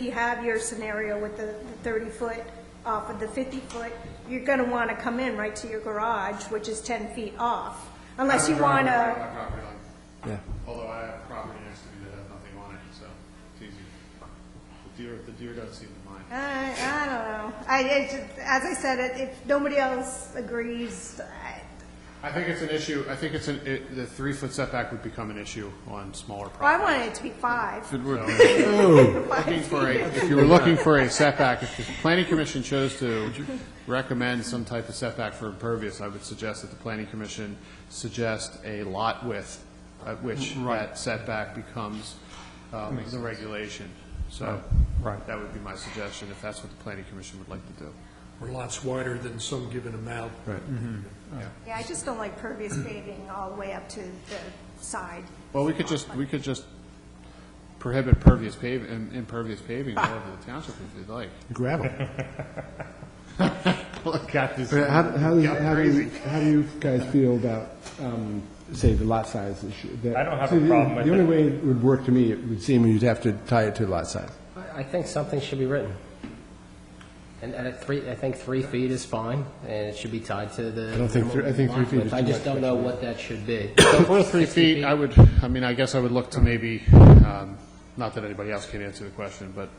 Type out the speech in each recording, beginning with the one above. you have your scenario with the thirty foot off of the fifty foot, you're gonna wanna come in right to your garage, which is ten feet off, unless you I'm wanna. driving around my property line. Yeah. Although I have property next to me that has nothing on it, so it's easy. The deer, the deer doesn't seem to mind. I, I don't know. I, it's, as I said, it- if nobody else agrees, I, I think it's an issue, I think it's an, it, the three foot setback would become an issue on smaller I properties. wanted it to be five. If it were- if you were looking for a, if you were looking for a setback, if the planning commission chose to recommend some type of setback for impervious, I would suggest that the planning commission suggest a lot width at which that setback becomes, um, the regulation. So, Right. that would be my suggestion, if that's what the planning commission would like to do. or lots wider than some given amount. Right. Yeah, I just don't like pervious paving all the way up to the side. Well, we could just, we could just prohibit pervious pave, im- impervious paving all over the township if you'd like. Gravel. Got this. How, how, does- Got how do crazy. you, how do you guys feel about, um, say, the lot size issue? The- I don't have so a the- problem with The only it. way it would work to me, it would seem, you'd have to tie it to lot size. I I think something should be written. And and I three, I think three feet is fine, and it should be tied to the. I don't think three- I think three feet is I too just much. don't know what that should be. So for three feet, I would, I mean, I guess I would look to maybe, um, not that anybody else can answer the question, but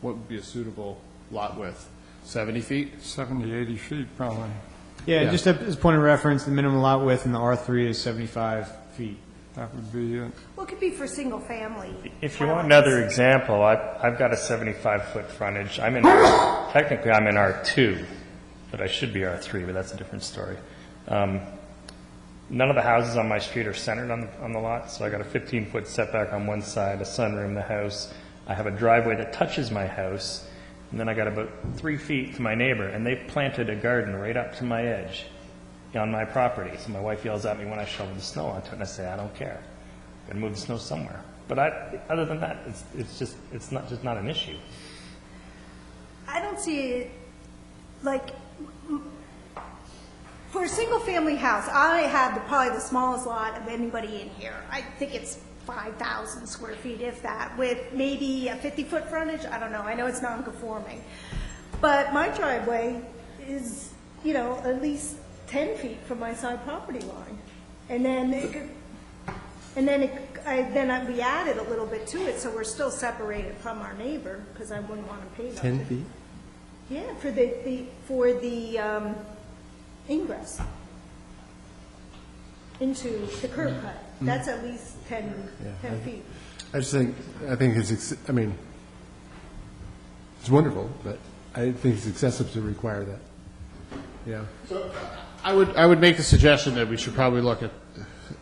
what would be a suitable lot width? Seventy feet? 70, 80 feet probably. Yeah. Yeah, just a- as a point of reference, the minimum lot width in the R3 is 75 feet. That would be it. Well, it could be for single family. If you want another example, I've, I've got a 75-foot frontage. I'm in, technically, I'm in R2, but I should be R3, but that's a different story. Um, None of the houses on my street are centered on, on the lot, so I got a 15-foot setback on one side, a sunroom, the house. I have a driveway that touches my house, and then I got about three feet to my neighbor, and they've planted a garden right up to my edge on my property. So my wife yells at me when I shovel the snow onto it, and I say, I don't care. I'm going to move the snow somewhere. But I, other than that, it's, it's just, it's not, just not an issue. I don't see it, like, m- for a single-family house, I have the- probably the smallest lot of anybody in here. I think it's 5,000 square feet, if that, with maybe a 50-foot frontage, I don't know, I know it's non-conforming. But my driveway is, you know, at least 10 feet from my side property line. And then it could, and then it, I, then I- we added a little bit to it, so we're still separated from our neighbor, because I wouldn't want to pave up to feet? yeah, for the, the, for the, um, ingress into the curb cut. That's at least ten, ten feet. Mm-hmm. I just think, I think it's, ex- I mean, it's wonderful, but I think it's excessive to require that. Yeah. I would, I would make the suggestion that we should probably look at,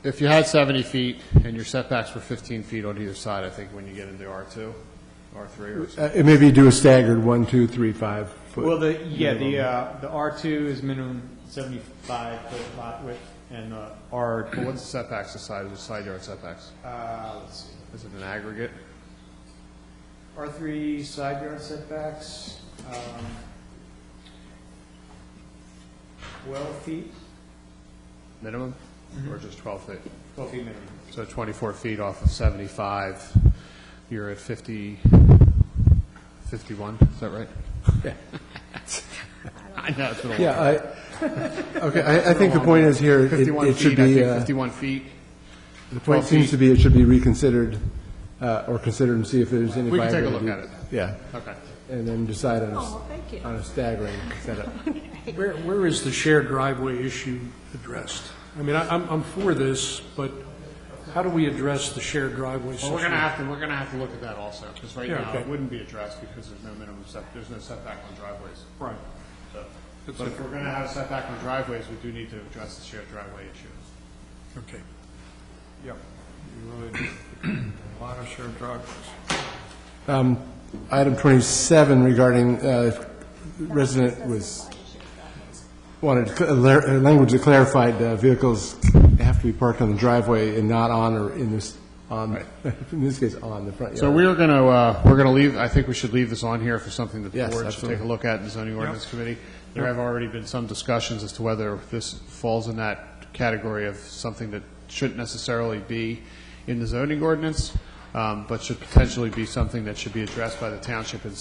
if you had 70 feet and your setbacks were 15 feet on either side, I think when you get into R2, R3 or something. Uh, and maybe do a staggered one, two, three, five foot. Well, the, yeah, the, uh, the R2 is minimum 75 foot lot width, and the R, But what's the setbacks, the side, the side yard setbacks? uh, let's see, Is it an aggregate? R3 side yard setbacks, um, 12 feet, minimum, or just 12 feet? 12 feet minimum. So 24 feet off of 75, you're at 50, 51, is that right? I know, it's been a Yeah, while. I, okay, I, I think the point is here, it- 51 it should feet, I be, think, uh, 51 feet. the point seems to be it should be reconsidered, uh, or considered and see if there's any We can take a viability. look at it. Yeah, Okay. and then decide on a, Oh, thank you. s- on a staggering setup. Where, where is the shared driveway issue addressed? I mean, I- I'm, I'm for this, but how do we address the shared driveway Well, situation? we're going to have to, we're going to have to look at that also, because right Yeah, now, it okay. wouldn't be addressed because there's no minimum set, there's no setback on driveways. Right. So- But if we're going to have a setback on driveways, we do need to address the shared driveway issue. Okay. Yep. You really do. A lot of shared driveways. Um, Item 27 regarding uh, resident was, wanted cl- uh, lar- uh, language that clarified uh, vehicles have to be parked on the driveway and not on or in this, on, in this case, on the front yard. So we are going to, we're going to leave, I think we should leave this on here for something that the Yes, board should take a absolutely. look at in the zoning ordinance committee. There have already been some discussions as to whether this falls in that category of something that shouldn't necessarily be in the zoning ordinance. um, but should potentially be something that should be addressed by the township in